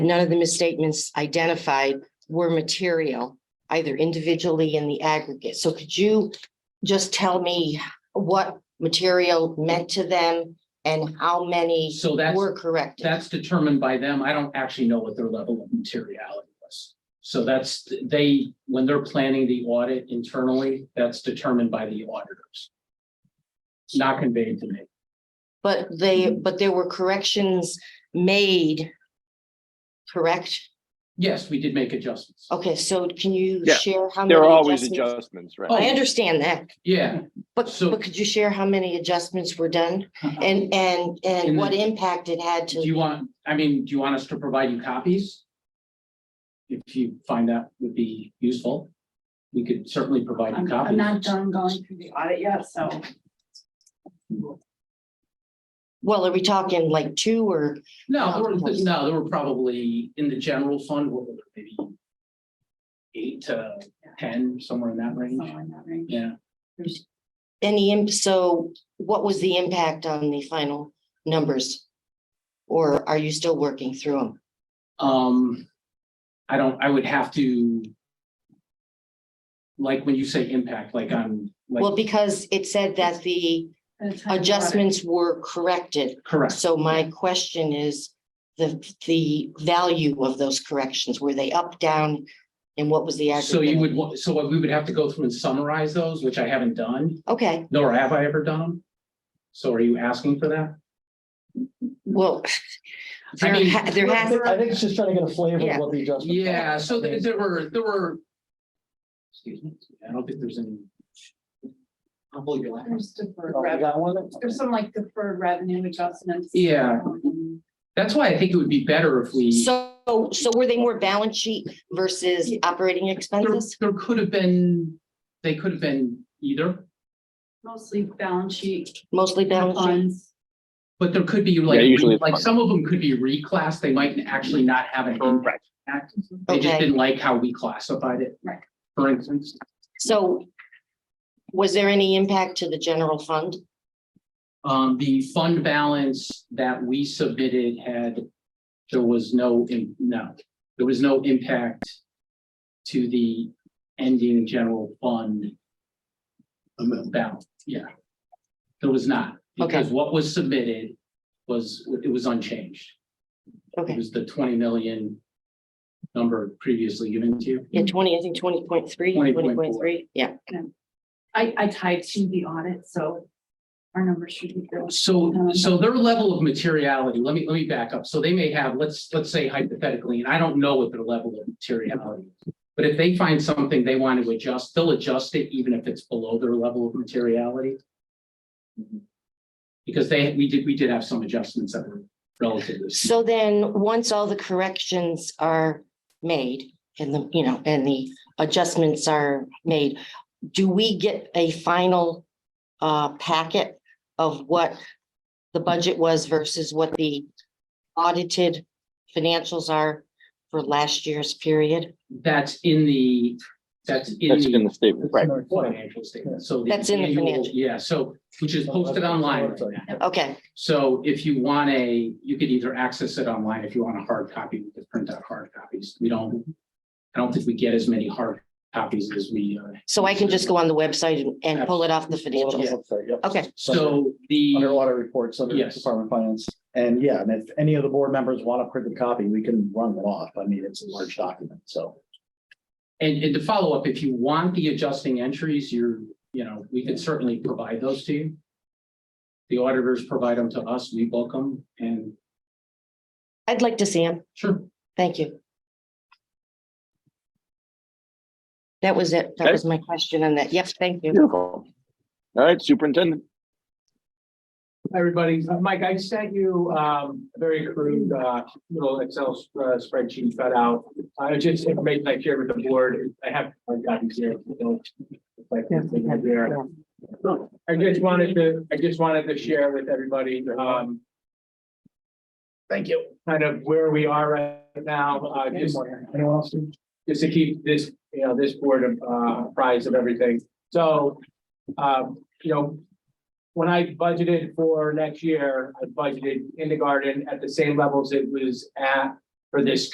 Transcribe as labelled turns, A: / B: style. A: None of the misstatements identified were material, either individually in the aggregate. So could you just tell me what material meant to them and how many
B: So that's,
A: were corrected?
B: that's determined by them. I don't actually know what their level of materiality was. So that's, they, when they're planning the audit internally, that's determined by the auditors. It's Not conveyed to me.
A: But they,
B: Mhm.
A: but there were corrections made. Correct?
B: Yes, we did make adjustments.
A: Okay, so can you
C: Yeah,
A: share how many?
C: There are always
A: adjustments-
C: adjustments, right?
A: I understand that,
B: Yeah,
A: but,
B: So-
A: but could you share how many adjustments were done
B: do
A: and, and,
B: In
A: and
B: the-
A: what impact it had to?
B: you want, I mean, do you want us to provide you copies? If you find that would be useful, we could certainly provide you
D: I'm,
B: copies.
D: I'm not done going through the audit yet, so.
A: Well, are we talking like two or,
B: No, there were, no, there were probably in the general fund, what were there, maybe eight to ten, somewhere in that range.
D: somewhere in that range.
B: Yeah,
A: any, im- so what was the impact on the final numbers? Or are you still working through them?
B: um, I don't, I would have to like when you say impact, like on,
A: Well,
B: like,
A: because it said that the
D: And it's kind of
A: adjustments were corrected.
B: correct.
A: So my question is, the, the value of those corrections, were they up, down? And what was the?
B: So you
A: aggregate?
B: would, wa- so we would have to go through and summarize those, which I haven't done,
A: Okay,
B: nor have I ever done them. So are you asking for that?
A: well. There,
B: mean,
A: ha- there has,
E: I think it's just trying to get a flavor
A: Yeah.
E: of what the adjustment.
B: Yeah, so there there were, there were. Excuse me, I don't think there's any. I'll believe
D: automatic.
B: you.
D: There's deferred
E: Oh, you
D: revenue,
E: got one?
D: there's some like deferred revenue adjustments.
B: Yeah.
D: Um,
B: That's why I think it would be better if we,
A: so, so were they more balance sheet versus operating
B: there,
A: expenses?
B: there could have been, they could have been either,
D: Mostly balance sheet
A: Mostly balance sheet?
D: funds.
B: but there could be
C: Yeah,
B: like,
C: usually it's
B: like
C: fine.
B: some of them could be reclassed, they might actually not have an impact.
C: Correct.
B: They just
A: Okay.
B: didn't like how we classified it.
D: Right.
B: For instance,
A: So was there any impact to the general fund?
B: um, the fund balance that we submitted had, there was no, im- no, there was no impact to the ending general fund um, balance, yeah. There was not, because what was submitted was, it was unchanged. It
A: Okay,
B: was the twenty million number previously given to you.
A: yeah, twenty, I think 20.3, 20.3.
B: 20.4.
A: yeah.
D: I, I tied to the audit, so our numbers should be good.
B: So,
D: Um,
B: so their level of materiality, let me, let me back up. So they may have, let's, let's say hypothetically, and I don't know what their level of materiality. is, But if they find something they want to adjust, they'll adjust it even if it's below their level of materiality. Because they, we did, we did have some adjustments that were relative. to-
A: So then, once all the corrections are made and the, you know, and the adjustments are made, do we get a final uh packet of what the budget was versus what the audited financials are for last year's period?
B: That's in the, that's in
C: That's
B: the.
C: in the statement, right?
B: Financial statement, so.
A: That's in the
B: annual-
A: financial.
B: Yeah, so, which is posted online right now.
A: Okay,
B: So if you want a, you could either access it online, if you want a hard copy, we could print out hard copies. We don't, I don't think we get as many hard copies as we, uh,
A: so I can just go on the website and- and pull it off the financials. Okay,
B: so
E: Under
B: the,
E: audit reports, under
B: Yes.
E: Department of Finance. And yeah, and if any of the board members want a printed copy, we can run them off. I mean, it's a large document, so.
B: and, and to follow up, if you want the adjusting entries, you're, you know, we could certainly provide those to you. The auditors provide them to us, we book them, and
A: I'd like to see them.
B: sure,
A: Thank you. That was it. That
C: Okay.
A: was my question on that. Yep, thank you.
C: Beautiful. All right, superintendent.
F: Hi, everybody. Uh, Mike, I sent you um, a very crude uh, little Excel sp- uh, spreadsheet cut out. Uh, It's just information I shared with the board. I have, I've gotten here. so it's like nothing in there. I just wanted to, I just wanted to share with everybody um,
E: Thank you.
F: kind of where we are right now, uh, just
E: Anyone else?
F: just to keep this, you know, this board uh, apprised of everything. So, um, you know, when I budgeted for next year, I budgeted kindergarten at the same levels it was at for this